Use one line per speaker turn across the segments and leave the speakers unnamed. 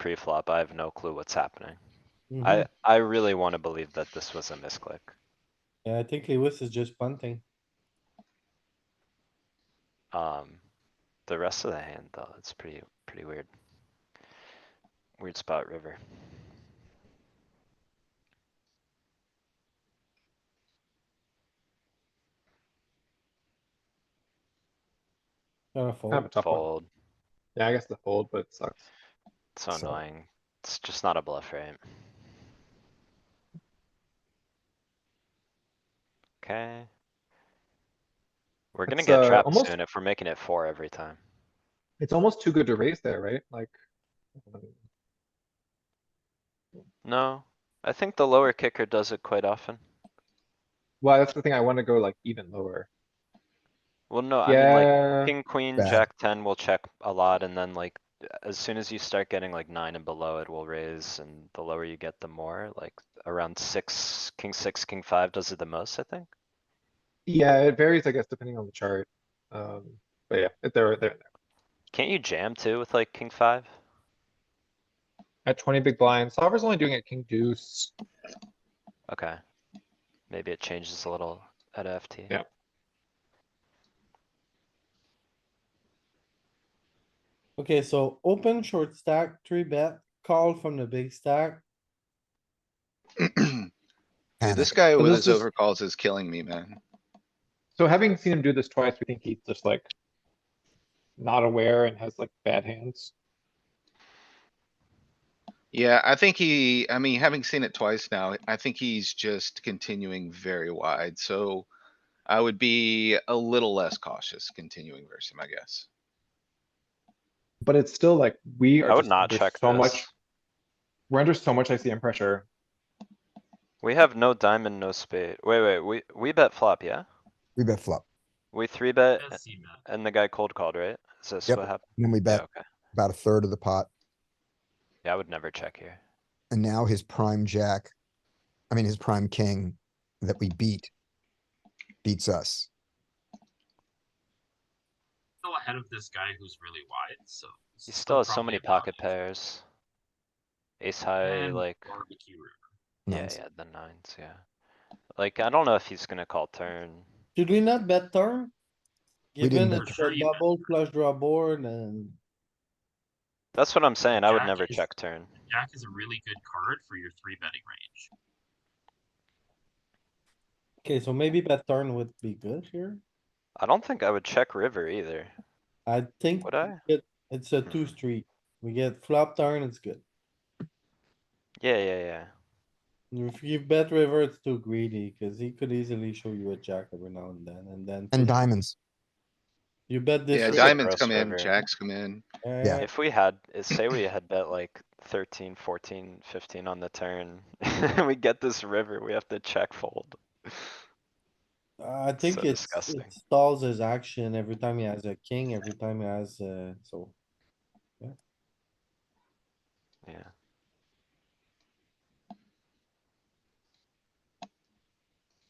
pre-flop, I have no clue what's happening.
Mm-hmm.
Mm-hmm.
I, I really wanna believe that this was a misclick.
Yeah, I think Lewis is just punting.
Um, the rest of the hand though, it's pretty, pretty weird. Weird spot river.
Gotta
Have a
fold.
tough one.
Fold,
Yeah, I guess the fold, but it sucks.
so
So-
annoying. It's just not a bluff, right? Okay. We're gonna
It's,
get
uh,
trapped
almost-
soon if we're making it four every time.
It's almost too good to raise there, right? Like. um,
No, I think the lower kicker does it quite often.
Well, that's the thing. I wanna go like even lower.
Well, no, I mean like
Yeah,
king, queen,
Bad.
jack ten will check a lot and then like as soon as you start getting like nine and below, it will raise and the lower you get, the more like around six, king six, king five does it the most, I think.
yeah, it varies, I guess, depending on the chart. Um, but yeah, it- they're, they're,
Can't you jam too with like king five?
at twenty big blind. Solver's only doing it king deuce.
Okay. Maybe it changes a little at FT.
Yeah.
Okay, so open short stack, three bet, call from the big stack.
This guy
But
with
this
his
is-
overcalls is killing me, man.
So having seen him do this twice, we think he's just like not aware and has like bad hands.
Yeah, I think he, I mean, having seen it twice now, I think he's just continuing very wide, so. I would be a little less cautious continuing versus him, I guess.
But it's still like, we
I
are
would
just
not
under
check
so much,
this.
we're under so much ICM pressure.
We have no diamond, no spade. Wait, wait, we, we bet flop, yeah?
We bet flop.
We three bet
I've seen that.
and the guy cold called, right? Is this
Yep.
what happened?
and Then we
Yeah,
bet
okay.
about a third of the pot
Yeah, I would never check here.
and now his prime jack, I mean, his prime king that we beat beats us.
Still ahead of this guy who's really wide, so. it's
He still has so
probably
many
a
pocket
value.
pairs. Ace high,
And
like,
Barbecue room.
yeah,
Nines.
yeah, the nines, yeah. Like, I don't know if he's gonna call turn.
Did we not bet turn?
We didn't
Given
bet
it's
turn.
a double flush draw board and
That's what I'm saying. I would
Jack
never
is-
check turn.
Jack is a really good card for your three betting range.
okay, so maybe bet turn would be good here.
I don't think I would check river either.
I think
Would I?
it- it's a two street. We get flop turn, it's good.
Yeah, yeah, yeah.
If you bet river, it's too greedy cuz he could easily show you a jack every now and then and then.
And diamonds.
You bet this.
Yeah,
is
river,
a
diamonds
gross
come in,
river.
jacks come in.
eh,
yeah.
If we had, say we had bet like 13, 14, 15 on the turn, and we get this river, we have to check fold.
I think
So
it's,
disgusting.
it stalls his action every time he has a king, every time he has, uh, so.
Yeah.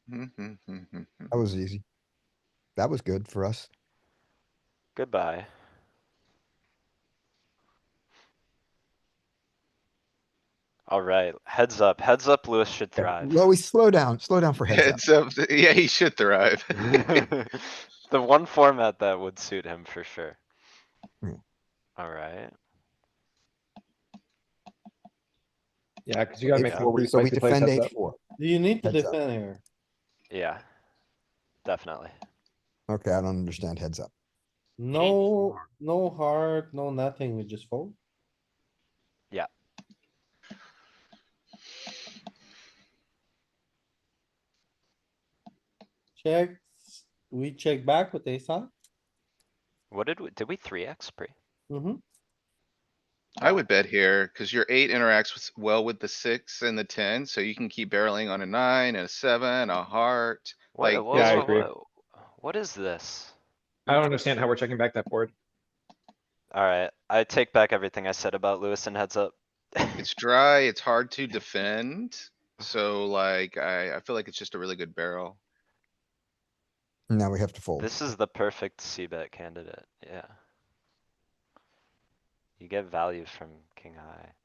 Mm-hmm.
That was easy. That was good for us.
Goodbye. Alright, heads up, heads up, Lewis should thrive.
Well, we slow down, slow down for heads up.
Heads up, yeah, he should thrive.
The one format that would suit him for sure.
Hmm.
Alright,
Yeah, cuz you gotta make
Eight
Yeah.
four
four,
where you
So we
spicy plays
defend
has
eight
that-
four.
Do you need to
Heads up.
defend here?
yeah. Definitely.
Okay, I don't understand heads up.
No,
four.
no heart, no nothing, we just fold? Check, we check back with ace high?
What did we, did we three X pre?
Mm-hmm,
I would bet here, cuz your eight interacts with, well with the six and the ten, so you can keep barreling on a nine and a seven, a heart.
What,
Like,
what,
yeah, I
what-
agree.
what- what is this?
I don't understand how we're checking back that board.
Alright, I take back everything I said about Lewis and heads up.
It's dry, it's hard to defend, so like, I, I feel like it's just a really good barrel.
Now we have to fold.
This is the perfect C bet candidate, yeah. You get value from king high.